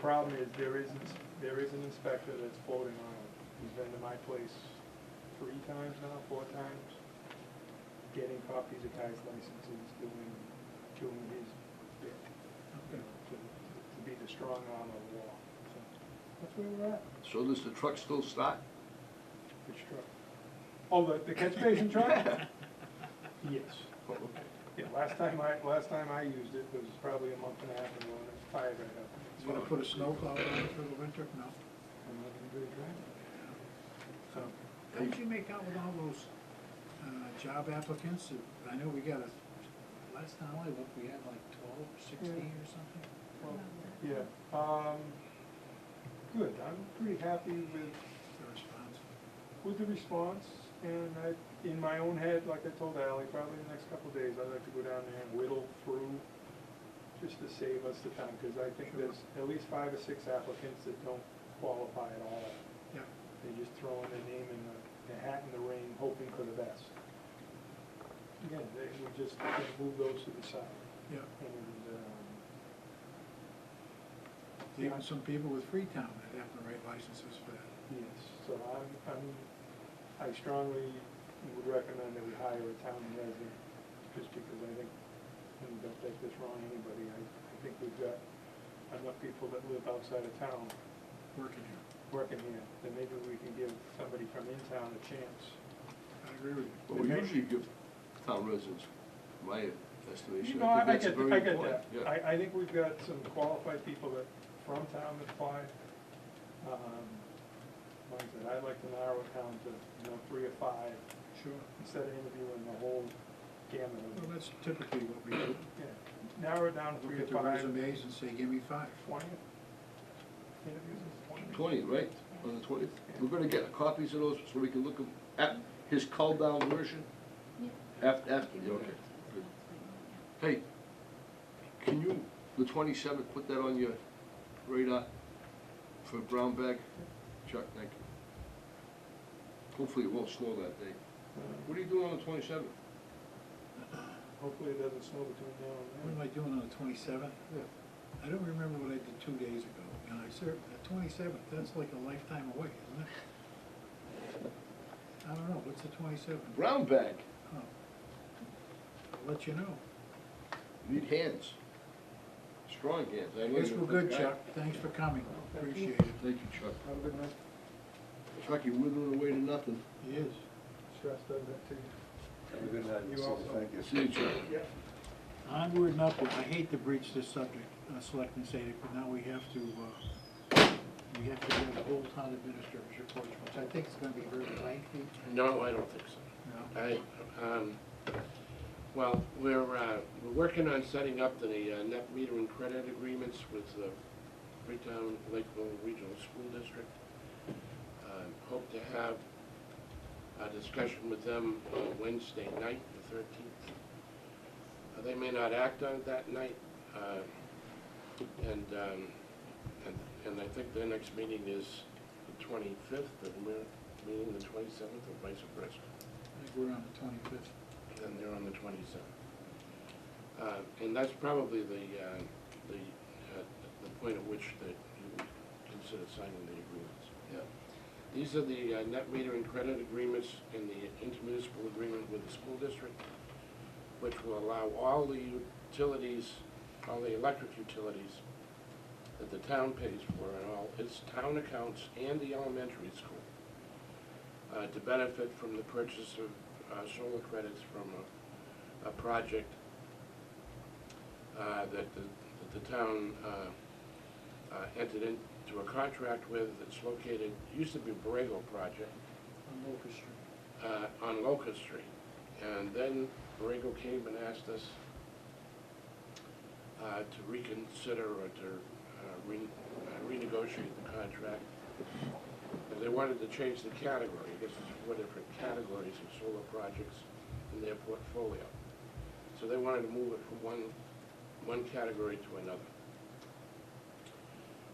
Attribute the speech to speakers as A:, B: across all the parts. A: problem is there is, ins- there is an inspector that's floating on it. He's been to my place three times now, four times, getting copies of guys' licenses, doing, doing his bit, you know, to, to be the strong arm of the law. So That's where we're at,
B: So does the truck still start?
A: It's truck. Oh, the, the catch basin truck? Yes.
B: Oh, okay.
A: Yeah, last time I, last time I used it was probably a month and a half ago, and it's fired right up.
C: You wanna put a snowplow on it for the winter? No.
A: I'm not gonna do it right. So,
C: How did you make out with all those, uh, job applicants? that- I know we got a, last time I looked, we had like twelve, sixteen or something.
A: well, yeah, um, good, I'm pretty happy with,
C: The response.
A: with the response, and I, in my own head, like I told Ally, probably the next couple of days, I'd like to go down there and whittle through, just to save us the time, because I think there's at least five or six applicants that don't qualify at all.
C: Yep.
A: They're just throwing their name in the, the hat in the ring, hoping for the best. Again, they, we just can't move those to the side.
C: Yep.
A: And, um,
C: Even some people with Freetown that have the right licenses for that.
A: yes, so I'm, I'm, I strongly would recommend that we hire a town resident, just because I think, and don't take this wrong, anybody, I, I think we've got enough people that live outside of town
C: working here.
A: working here, that maybe we can give somebody from in town a chance.
C: I agree with you.
B: Well, we usually give town residents, my estimation,
A: No, I I
B: I think that's
A: get,
B: very
A: I get
B: important.
A: that. I, I think we've got some qualified people that, from town that apply. Um, Like I said, I'd like to narrow it down to, you know, three or five,
C: Sure.
A: instead of interviewing the whole gamut
C: Well,
A: of,
C: that's typically what we do.
A: yeah, narrow it down to
C: Look
A: three
C: at
A: to
C: the
A: five.
C: resumes and say, give me five.
A: Twenty? Interviews is twenty?
B: Twenty, right, on the twentieth? We're gonna get copies of those so we can look them at his call down version after, after, yeah, okay. good. Hey, can you, the twenty-seventh, put that on your radar for brown bag? Chuck, thank you. Hopefully it won't snow that day.
A: Uh,
B: What are you doing on the twenty-seventh?
A: Hopefully it doesn't snow between now
C: What
A: and
C: am
A: then.
C: I doing on the twenty-seventh? I don't remember what I did two days ago, and I served, the twenty-seventh, that's like a lifetime away, isn't it? I don't know, what's the twenty-seventh?
B: Brown bag,
C: I'll let you know.
B: need hands, strong hands. I
C: I
B: know
C: guess
B: you're a
C: we're good,
B: guy.
C: Chuck, thanks for coming,
A: Thank you.
C: appreciate it.
B: Thank you, Chuck.
A: Have a good night,
B: Chuck, you withered away to nothing.
C: He is.
A: stress does that to you.
D: Have a good night.
A: You also.
D: Thank you.
B: See you, Chuck.
A: Yeah.
C: Onward and upward, I hate to breach this subject, uh, Selectman Sadek, but now we have to, uh, we have to do the whole town administrator's report, which I think is gonna be very lengthy.
E: No, I don't think so.
C: No.
E: I, um, well, we're, uh, we're working on setting up the uh, net metering credit agreements with the Freetown Lakeville Regional School District. Uh, Hope to have a discussion with them on Wednesday night, the thirteenth. Uh, They may not act on it that night, uh, and, um, and, and I think their next meeting is the twenty-fifth, and we're meeting the twenty-seventh, or vice versa.
C: I think we're on the twenty-fifth.
E: And they're on the twenty-seventh. And that's probably the, uh, the, uh, the point at which that you would consider signing the agreements. Yeah. These are the uh, net metering credit agreements and the intermunicipal agreement with the school district, which will allow all the utilities, all the electric utilities that the town pays for and all its town accounts and the elementary school uh, to benefit from the purchase of uh, solar credits from a, a project uh, that the, that the town uh, uh, entered into a contract with that's located, used to be Borrego Project,
C: On Locust Street.
E: uh, on Locust Street. And then Borrego came and asked us uh, to reconsider or to uh, re- uh, renegotiate the contract. And they wanted to change the category, I guess there's four different categories of solar projects in their portfolio. So they wanted to move it from one, one category to another.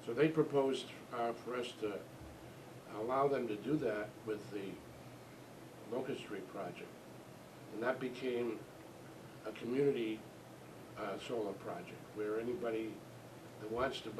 E: So they proposed uh, for us to allow them to do that with the Locust Street project. And that became a community uh, solar project, where anybody that wants to